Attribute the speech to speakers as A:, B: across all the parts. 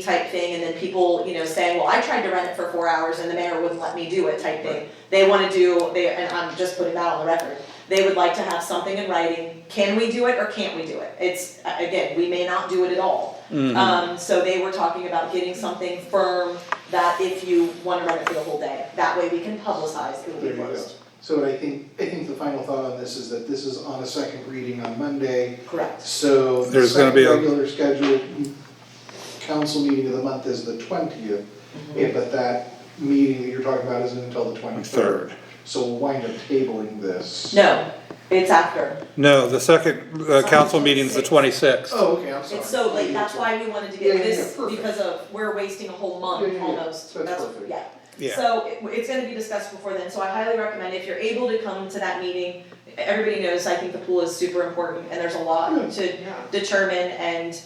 A: type thing, and then people, you know, saying, well, I tried to rent it for four hours and the mayor wouldn't let me do it type thing. They wanna do, they, and I'm just putting that on the record, they would like to have something in writing, can we do it or can't we do it? It's, a- again, we may not do it at all.
B: Mm-hmm.
A: Um, so they were talking about getting something firm that if you wanna rent it for the whole day, that way we can publicize, it will be
C: There you go.
A: posted.
C: So I think, I think the final thought on this is that this is on a second reading on Monday,
A: Correct,
C: so the
B: There's gonna
C: second
B: be a-
C: regular scheduled council meeting of the month is the twentieth.
A: Mm-hmm.
C: but that meeting that you're talking about isn't until the twenty-third.
B: Third.
C: So we'll wind up tabling this.
A: no, it's after,
B: No, the second, uh, council meeting's the twenty-sixth.
C: Oh, okay, I'm sorry.
A: it's so late, that's why we wanted to
C: Yeah,
A: get
C: yeah, yeah,
A: this,
C: perfect.
A: because of, we're wasting a whole
C: Yeah,
A: month
C: yeah, yeah,
A: almost,
C: that's
A: that's,
C: perfect.
A: yeah.
B: Yeah,
A: So it, it's gonna be discussed before then, so I highly recommend if you're able to come to that meeting, everybody knows, I think the pool is super important and there's a
B: Hmm,
A: lot to
C: Yeah.
A: determine and,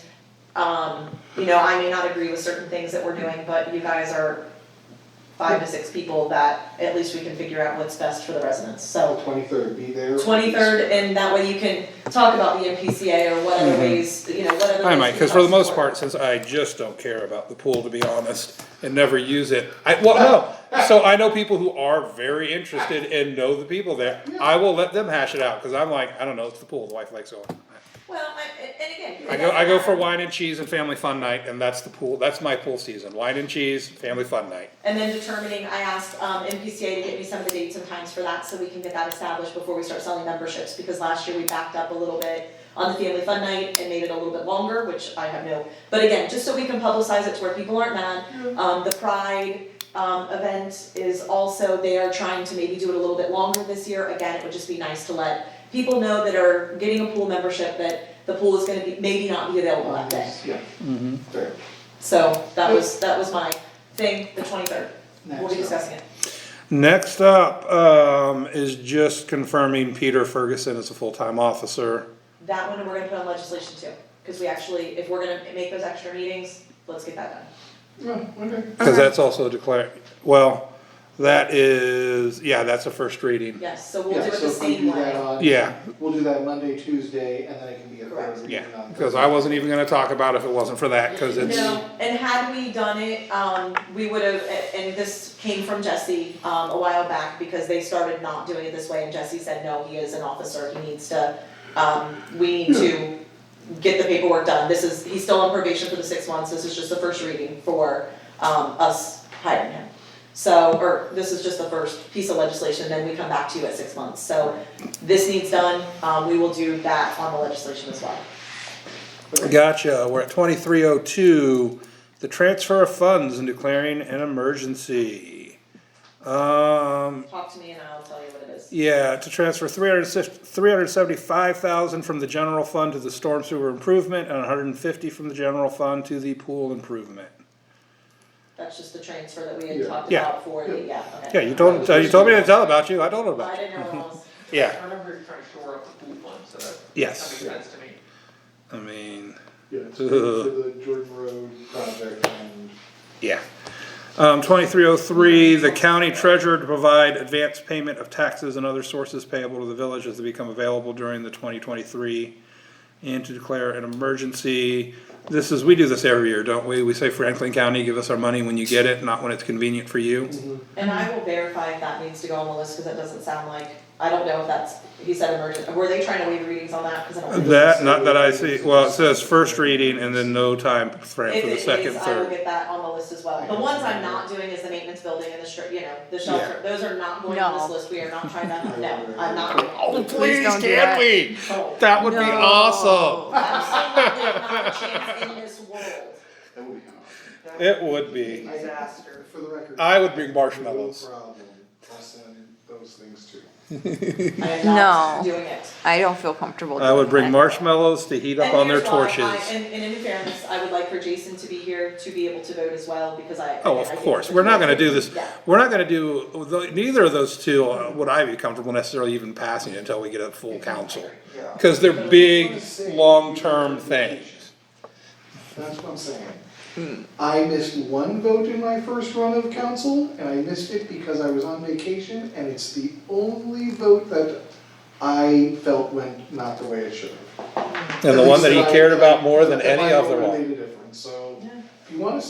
A: um, you know, I may not agree with certain things that we're doing, but you guys are five to six people that at least we can figure out what's best for the residents, so.
C: Twenty-third, be there.
A: Twenty-third, and that way you can talk about the MPCA or what other
B: Mhm.
A: ways, you know, what other ways.
B: I might,
A: we
B: because for the
A: can
B: most
A: support.
B: part, since I just don't care about the pool, to be honest, and never use it, I, well, no. So I know people who are very interested and know the people there, I will let them hash it out, because I'm like, I don't know, it's the pool, the wife likes it.
A: Well, I- and- and again. it
B: I go, I go for
A: doesn't matter.
B: wine and cheese and family fun night, and that's the pool, that's my pool season, wine and cheese, family fun night.
A: And then determining, I asked um MPCA to get me some of the dates and times for that, so we can get that established before we start selling memberships, because last year we backed up a little bit on the family fun night and made it a little bit longer, which I have no, but again, just so we can publicize it to where people aren't mad. Um the Pride um event is also, they are trying to maybe do it a little bit longer this year, again, it would just be nice to let people know that are getting a pool membership that the pool is gonna be, maybe not be available that day.
C: Yeah,
B: Mm-hmm.
C: there.
A: So that was, that was my thing, the twenty-third, we'll
C: Next
A: be
C: up.
A: discussing it.
B: Next up, um, is just confirming Peter Ferguson is a full-time officer.
A: That one we're gonna put on legislation too, cause we actually, if we're gonna make those extra meetings, let's get that done.
C: Oh, okay.
B: Cause that's also declared, well, that is, yeah, that's a first reading.
A: Yes, so we'll do it
C: Yeah, so
A: the
C: if we
A: same
C: do that
A: way.
C: on.
B: Yeah,
C: We'll do that Monday, Tuesday, and then it can be a
A: Correct.
C: third reading
B: yeah,
C: on
B: because
C: Thursday.
B: I wasn't even gonna talk about it if it wasn't for that, cause it's,
A: No, and had we done it, um, we would have, and this came from Jesse, um, a while back, because they started not doing it this way, and Jesse said, no, he is an officer, he needs to, um, we need to get the paperwork done, this is, he's still on probation for the six months, this is just the first reading for, um, us hiring him. So, or this is just the first piece of legislation, then we come back to you at six months, so this needs done, um, we will do that on the legislation as well.
B: gotcha, we're at twenty-three oh two, the transfer of funds and declaring an emergency. Um,
A: Talk to me and I'll tell you what it is.
B: Yeah, to transfer three hundred three hundred seventy-five thousand from the general fund to the storm sewer improvement and hundred and fifty from the general fund to the pool improvement.
A: That's just the transfer that we had
C: Yeah.
A: talked
B: Yeah.
A: about for the, yeah, okay.
B: Yeah, you told, uh, you told me to tell about you, I told her
A: I
B: about you.
A: didn't know what else.
B: Yeah,
D: I remember you're trying to shore up the pool fund, so that, that
B: yes,
D: makes sense to me.
B: I mean,
C: Yeah, it's for the Jordan Road project and.
B: yeah. Um, twenty-three oh three, the county treasurer to provide advance payment of taxes and other sources payable to the village as they become available during the twenty twenty-three. And to declare an emergency, this is, we do this every year, don't we? We say Franklin County, give us our money when you get it, not when it's convenient for you.
A: And I will verify if that needs to go on the list, cause it doesn't sound like, I don't know if that's, he said emergent, were they trying to waive readings on that, cause I don't. think-
B: That, not that I see, well, it says first reading and then no time frame
A: If
B: for the
A: it
B: second,
A: is, I will
B: third.
A: get that on the list as well. The ones I'm not doing is the maintenance building and the stri- you know, the shelter, those are not going on this
E: No.
A: list, we are not trying to, no, I'm not.
B: Oh,
E: Please don't do that.
B: we?
A: Oh,
B: That would be
E: No.
B: awesome.
A: Absolutely not a chance in this world.
C: That would be
B: It would be.
D: Disaster.
C: For the record.
B: I would bring
C: no
B: marshmallows.
C: problem. I'll send those things too.
A: I am not
E: No.
A: doing it.
E: I don't feel comfortable
B: I would bring
E: doing that.
B: marshmallows to heat up on their torches.
A: And here's why, I, and, and in fairness, I would like for Jason to be here to be able to vote as well, because I.
B: Oh,
A: I
B: of
A: think
B: course,
A: it's
B: we're not gonna do this,
A: Yeah.
B: we're not gonna do, neither of those two uh, would I be comfortable necessarily even passing until we get a full council.
C: Yeah.
B: Cause they're big, long-term things.
C: That's what I'm saying. I missed one vote in my first run of council, and I missed it because I was on vacation, and it's the only vote that I felt went not the way it should have.
B: And the one that he cared about more than any of them all.
C: At least that I- that my vote made a difference, so, if you wanna